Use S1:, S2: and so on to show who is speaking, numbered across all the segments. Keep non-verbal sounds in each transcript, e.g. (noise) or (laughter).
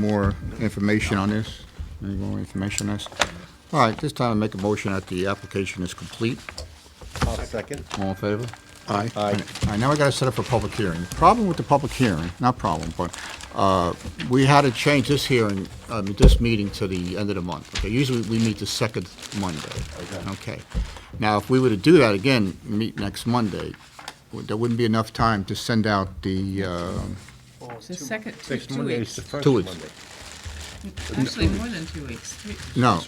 S1: more information on this? Any more information on this? All right, this time I make a motion that the application is complete.
S2: I'll second.
S1: All in favor? Aye.
S2: Aye.
S1: All right, now we gotta set up a public hearing. The Problem with the public hearing, not problem, but, uh, we had to change this hearing, I mean, this meeting to the end of the month. Okay, usually we meet the second Monday.
S2: Okay.
S1: Okay. Now, if we were to do that again, meet next Monday, w- there wouldn't be enough time to send out the, uh,
S3: The second, two,
S2: Next
S3: two
S2: Monday is
S3: weeks.
S2: the first
S1: Two weeks.
S2: Monday.
S3: Actually, more than two weeks. Three-
S1: no.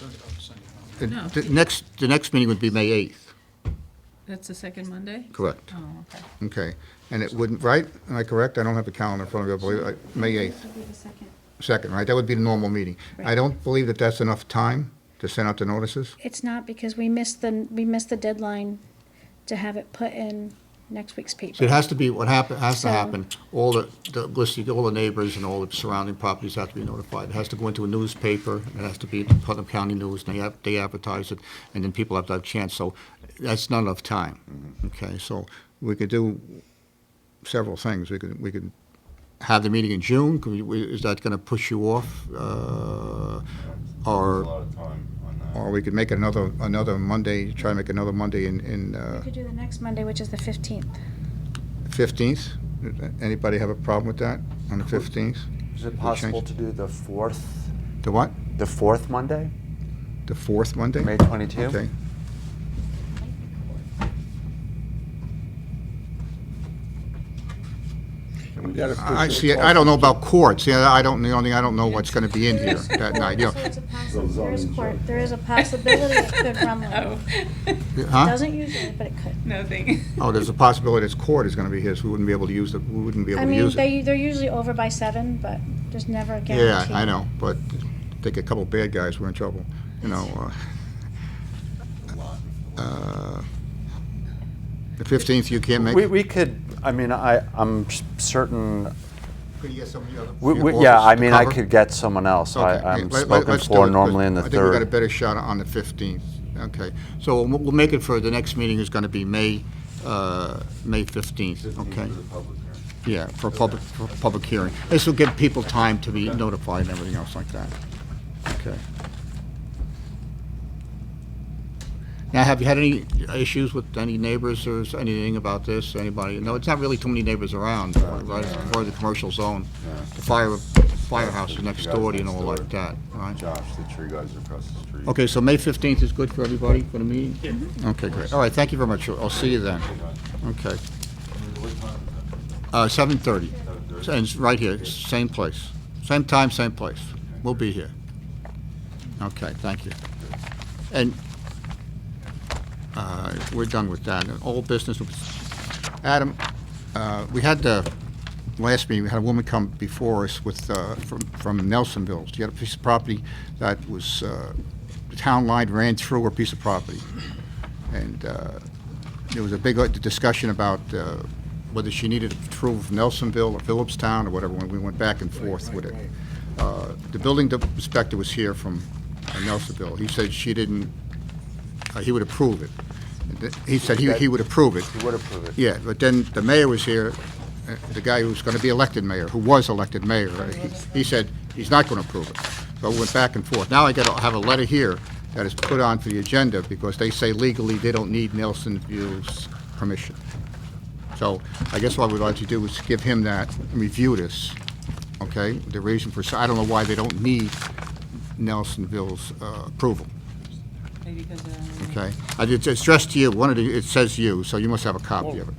S1: The-
S3: No.
S1: The next, the next meeting would be May 8th,
S3: That's the second Monday?
S1: correct?
S3: Oh, okay.
S1: Okay, and it wouldn't, right? Am I correct? I don't have a calendar in front of me, I believe, like, May 8th,
S4: It'll be the second.
S1: second, right? That would be the normal meeting. I don't believe that that's enough time to send out the notices.
S4: It's not because we missed the, we missed the deadline to have it put in next week's
S1: So it
S4: paper.
S1: has to be, what happen, has to
S4: So-
S1: happen, all the, the listing, all the neighbors and all the surrounding properties have to be notified. It has to go into a newspaper, it has to be in Putnam County News, and they, ad- they advertise it, and then people have to have a chance, so that's not enough time.
S5: Mm-hmm.
S1: Okay, so we could do several things. We could, we could have the meeting in June, Could we- we- is that gonna push you off? uh,
S5: a
S1: Or,
S5: lot of time on that.
S1: or we could make another, another Monday, try to make another Monday in, in, uh,
S4: We could do the next Monday, which is the fifteenth.
S1: 15th? Anybody have a problem with that, on the 15th?
S6: Is
S1: We
S6: it possible
S1: change-
S6: to do the fourth,
S1: The what?
S6: the fourth Monday,
S1: The fourth Monday?
S6: May 22?
S1: Okay.
S2: And we gotta
S1: I I
S2: push it
S1: see, I don't know about courts, yeah, I don't, the only, I don't know what's gonna be in here that night, you know.
S4: There is court, there is a possibility it (laughs) could rumble.
S3: Oh,
S1: Huh?
S4: Doesn't usually, but it
S3: (laughs)
S4: could.
S3: nothing.
S1: Oh, there's a possibility this court is gonna be here, so we wouldn't be able to use the, we wouldn't be
S4: I
S1: able to
S4: mean,
S1: use it.
S4: they, they're usually over by seven, but there's never a
S1: Yeah,
S4: guarantee.
S1: I know, but take a couple bad guys, we're in trouble, you know. uh, uh, The 15th, you can't make?
S6: We, we could, I mean, I, I'm s- certain,
S1: Could you get some of the other-
S6: we,
S1: your
S6: we, yeah,
S1: officers
S6: I
S1: to
S6: mean, I
S1: cover?
S6: could get someone else. I,
S1: Okay,
S6: I'm
S1: let- let-
S6: spoken
S1: let's do
S6: for
S1: it.
S6: normally in the
S1: I think we got a
S6: third.
S1: better shot on the 15th. Okay, so we'll we'll make it for, the next meeting is going to be May, uh, May 15th, okay?
S5: For the public hearing.
S1: Yeah, for a public, for a public hearing. This will give people time to be notified and everything else like that. Okay. Now, have you had any issues with any neighbors or is anything about this, anybody? No, it's not really too many neighbors around, right, It's part of the commercial zone. The fire, firehouse is next door to you and all like that, right?
S5: Josh, the tree guys are across the street.
S1: Okay, so May 15th is good for everybody for the meeting? Mm-hmm. Okay, great. All right, thank you very much. I'll see you then. Okay. Uh, 7:30. And it's right here, same place. Same time, same place. We'll be here. Okay, thank you. And uh, we're done with that. And All business, Adam, uh, we had the last meeting, we had a woman come before us with, uh, from from Nelsonville. She had a piece of property that was, uh, the town line ran through her piece of property. And uh, there was a big uh, discussion about uh, whether she needed approval from Nelsonville or Phillipstown or whatever, when we went back and forth with it. Uh, The building inspector was here from uh, Nelsonville. He said she didn't, uh, he would approve it. And th- He said he he would approve it.
S6: You would approve it.
S1: Yeah, but then the mayor was here, uh, the guy who was going to be elected mayor, who was elected mayor, uh, he- he said he's not going to approve it. So we went back and forth. Now I got to have a letter here that is put on for the agenda because they say legally they don't need Nelson View's permission. So I guess what we'd like to do is give him that, and review this, okay? The reason for, so I don't know why they don't need Nelsonville's uh, approval.
S3: Maybe because, um,
S1: Okay, I did- it's addressed to you, one of the, it says you, so you must have a copy of it.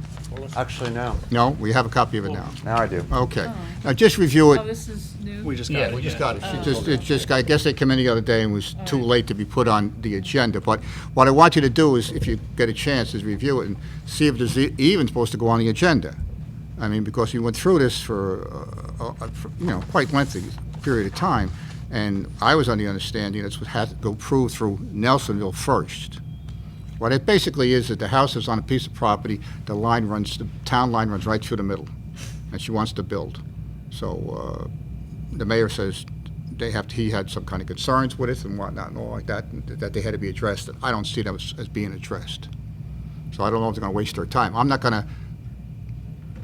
S6: Actually, no,
S1: No, we have a copy of it now.
S6: now I do.
S1: Okay, now just review
S3: oh,
S1: it.
S3: this is new.
S7: just
S1: Yeah, we just got it. It just, it just, I guess they came in the other day and was too late to be put on the agenda. But what I want you to do is, if you get a chance, is review it and see if there's e- even supposed to go on the agenda. I mean, because you went through this for, uh, uh, for, you know, quite lengthy period of time. And I was on the understanding it's what had to go prove through Nelsonville first. What it basically is, that the house is on a piece of property, the line runs, the town line runs right through the middle, and she wants to build. So, uh, the mayor says they have, he had some kind of concerns with it and whatnot and all like that, and that they had to be addressed. I don't see them as, as being addressed. So I don't know if they're gonna waste their time. I'm not gonna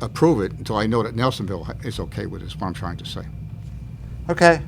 S1: approve it until I know that Nelsonville is okay with it, is what I'm trying to say.
S6: Okay,